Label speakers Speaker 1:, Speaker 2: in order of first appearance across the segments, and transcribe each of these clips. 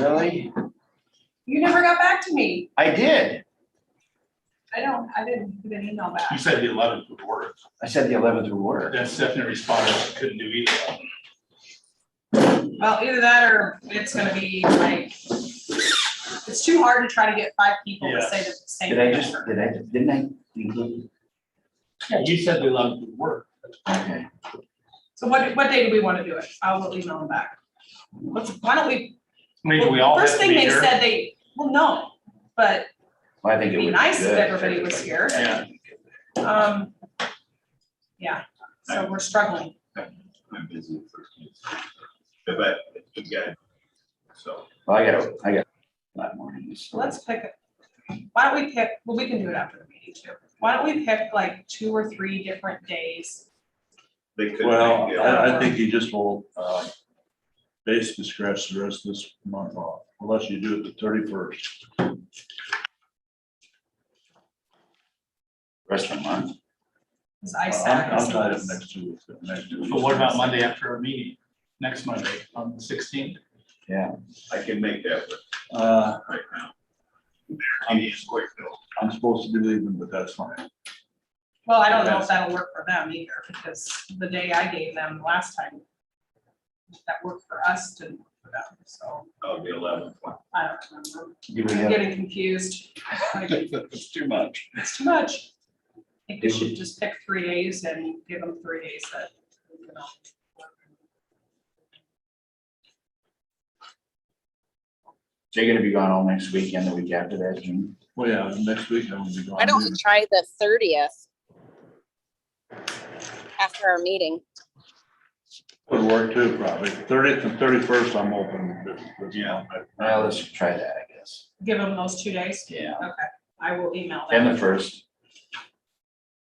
Speaker 1: really?
Speaker 2: You never got back to me.
Speaker 1: I did.
Speaker 2: I don't, I didn't get an email
Speaker 3: You
Speaker 2: back.
Speaker 3: said the eleventh would work.
Speaker 1: I said the eleventh would work.
Speaker 3: Then Stephanie responded, she couldn't do either.
Speaker 2: Well, either that or it's gonna be like, it's too hard to try to get five people to say the same.
Speaker 1: Did I just, did I, didn't I include?
Speaker 3: Yeah, you said the eleventh would work.
Speaker 1: Okay.
Speaker 2: So what, what day do we wanna do it? I will email them back. Let's, why don't we?
Speaker 3: Maybe we all have
Speaker 2: First
Speaker 3: to
Speaker 2: thing
Speaker 3: be
Speaker 2: they
Speaker 3: here.
Speaker 2: said they, well, no, but
Speaker 1: Well, I think it
Speaker 2: it'd
Speaker 1: would
Speaker 2: be
Speaker 1: be
Speaker 2: nice if
Speaker 1: good
Speaker 2: everybody was here.
Speaker 3: Yeah.
Speaker 2: Um, yeah, so we're struggling.
Speaker 4: I'm busy the first. But you got, so.
Speaker 1: Well, I gotta, I got. a lot more in this.
Speaker 2: Let's pick, a- why don't we pick, well, we can do it after the meeting too. Why don't we pick like two or three different days?
Speaker 4: They could.
Speaker 5: Well,
Speaker 4: make it-
Speaker 5: I, I think you just will, uh, basically scratch the rest of this month off, unless you do it the thirty-first.
Speaker 1: Rest of the month.
Speaker 2: Cause I said.
Speaker 5: I'm tied up next two weeks, next two weeks.
Speaker 3: So what about Monday after our meeting, next Monday, on the sixteenth?
Speaker 4: I can make that work
Speaker 5: Uh,
Speaker 4: right now. I need a quick though.
Speaker 5: I'm supposed to be leaving, but that's fine.
Speaker 2: Well, I don't know if that'll work for them either, because the day I gave them last time, that worked for us didn't work for them, so
Speaker 4: I'll be eleven.
Speaker 2: I don't remember.
Speaker 1: Do we
Speaker 2: I'm
Speaker 1: have,
Speaker 2: getting confused. Like,
Speaker 5: It's too much.
Speaker 2: It's too much. I think we should just pick three days and give them three days that. you know.
Speaker 1: they're gonna be gone all next week and the week after that, June.
Speaker 5: Well, yeah, next week I'm gonna be gone.
Speaker 6: Why don't we try the thirtieth? After our meeting,
Speaker 5: Would work too, probably. Thirtieth and thirty-first, I'm open. That's- that's
Speaker 3: Yeah.
Speaker 5: fine.
Speaker 1: Well, let's try that, I guess.
Speaker 2: Give them those two days.
Speaker 1: Yeah.
Speaker 2: Okay, I will email
Speaker 1: And the
Speaker 2: them.
Speaker 1: first.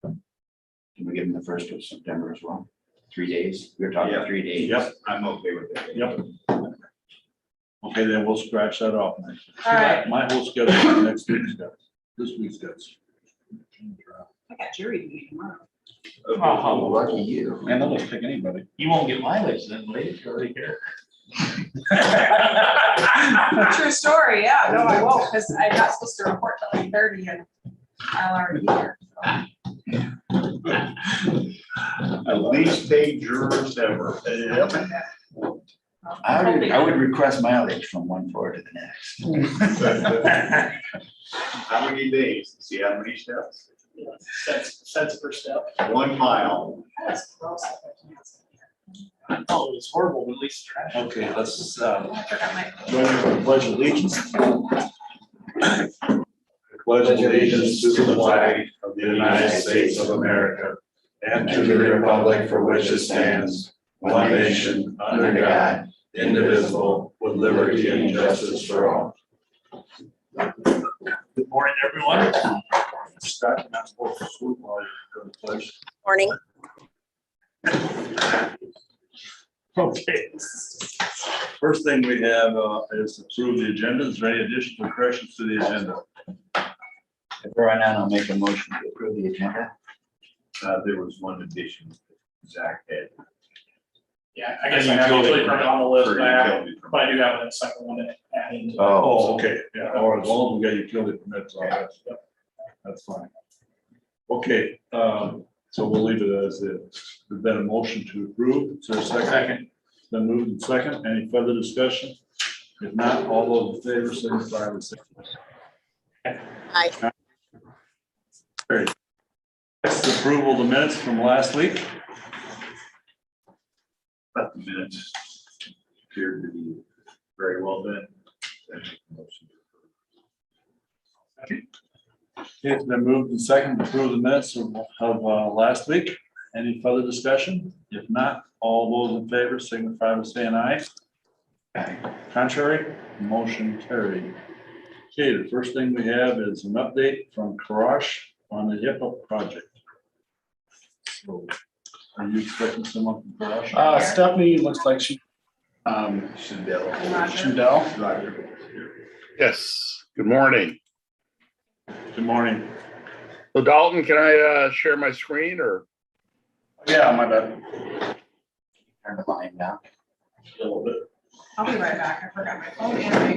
Speaker 1: Can we give them the first of September as well? Three days? We were talking
Speaker 4: Yeah.
Speaker 1: three days.
Speaker 5: Yep,
Speaker 4: I'm okay with that.
Speaker 5: Yep. okay, then we'll scratch that off next.
Speaker 2: All right.
Speaker 5: My whole schedule, for next week's got, this week's got.
Speaker 2: I got jury meeting tomorrow.
Speaker 1: Oh,
Speaker 3: Oh,
Speaker 1: lucky you.
Speaker 5: Man, they'll just pick anybody.
Speaker 3: You won't get mileage then, lady, if you're already here.
Speaker 2: True story, yeah, no, I won't, because I'm not supposed to report till eight thirty and I'll already be here.
Speaker 4: Least paid jurors ever. Yep.
Speaker 1: I would, I would request mileage from one floor to the next.
Speaker 4: How many days? See how many steps?
Speaker 3: Cents, cents per step.
Speaker 4: One mile.
Speaker 2: That's gross. I
Speaker 3: Oh, it's horrible, but at least it's trash.
Speaker 5: Okay, let's, uh,
Speaker 2: forgot my-
Speaker 5: Pledge allegiance. Pledge allegiance to the flag
Speaker 4: of
Speaker 5: of the United States of America and to the republic for which it stands, one nation, under God, indivisible, with liberty and justice for all. Good morning, everyone. Scott, you're not supposed to swoop while you're doing the pledge.
Speaker 6: morning.
Speaker 5: Okay. First thing we have uh, is approve the agenda. Is there any additional corrections to the agenda?
Speaker 1: If there are none, I'll make a motion to approve the agenda.
Speaker 4: Uh, there was one addition Zach had.
Speaker 3: Yeah, I guess I have usually put it on the list, but I have-
Speaker 4: Or you told me.
Speaker 3: but I do have a second one to add in.
Speaker 5: Oh, okay, yeah, or as long as we got utility permits, all that stuff. That's fine. Okay, um, so we'll leave it as is. There's been a motion to approve. Is there a second? Then moved and second. Any further discussion? If not, all those in favor, signify by saying aye.
Speaker 6: Aye.
Speaker 5: Great. Next, approval of the minutes from last week.
Speaker 4: But the minutes appeared to be very well done. Then make a motion to approve.
Speaker 5: Okay, It's been moved and second to approve the minutes of, of, uh, last week. Any further discussion? If not, all those in favor signify by saying aye. Contrary, motion carried. Okay, the first thing we have is an update from Karash on the HIPAA project. So, Are you expecting someone from Karash?
Speaker 7: Uh, Stephanie looks like she, um,
Speaker 2: I'm
Speaker 4: Shandell.
Speaker 2: not sure.
Speaker 7: Shandell,
Speaker 4: Roger.
Speaker 8: Yes, good morning.
Speaker 5: Good morning.
Speaker 8: So Dalton, can I uh, share my screen or?
Speaker 7: yeah, my bad.
Speaker 1: Turn the line now.
Speaker 2: I'll be right back, I forgot my phone and my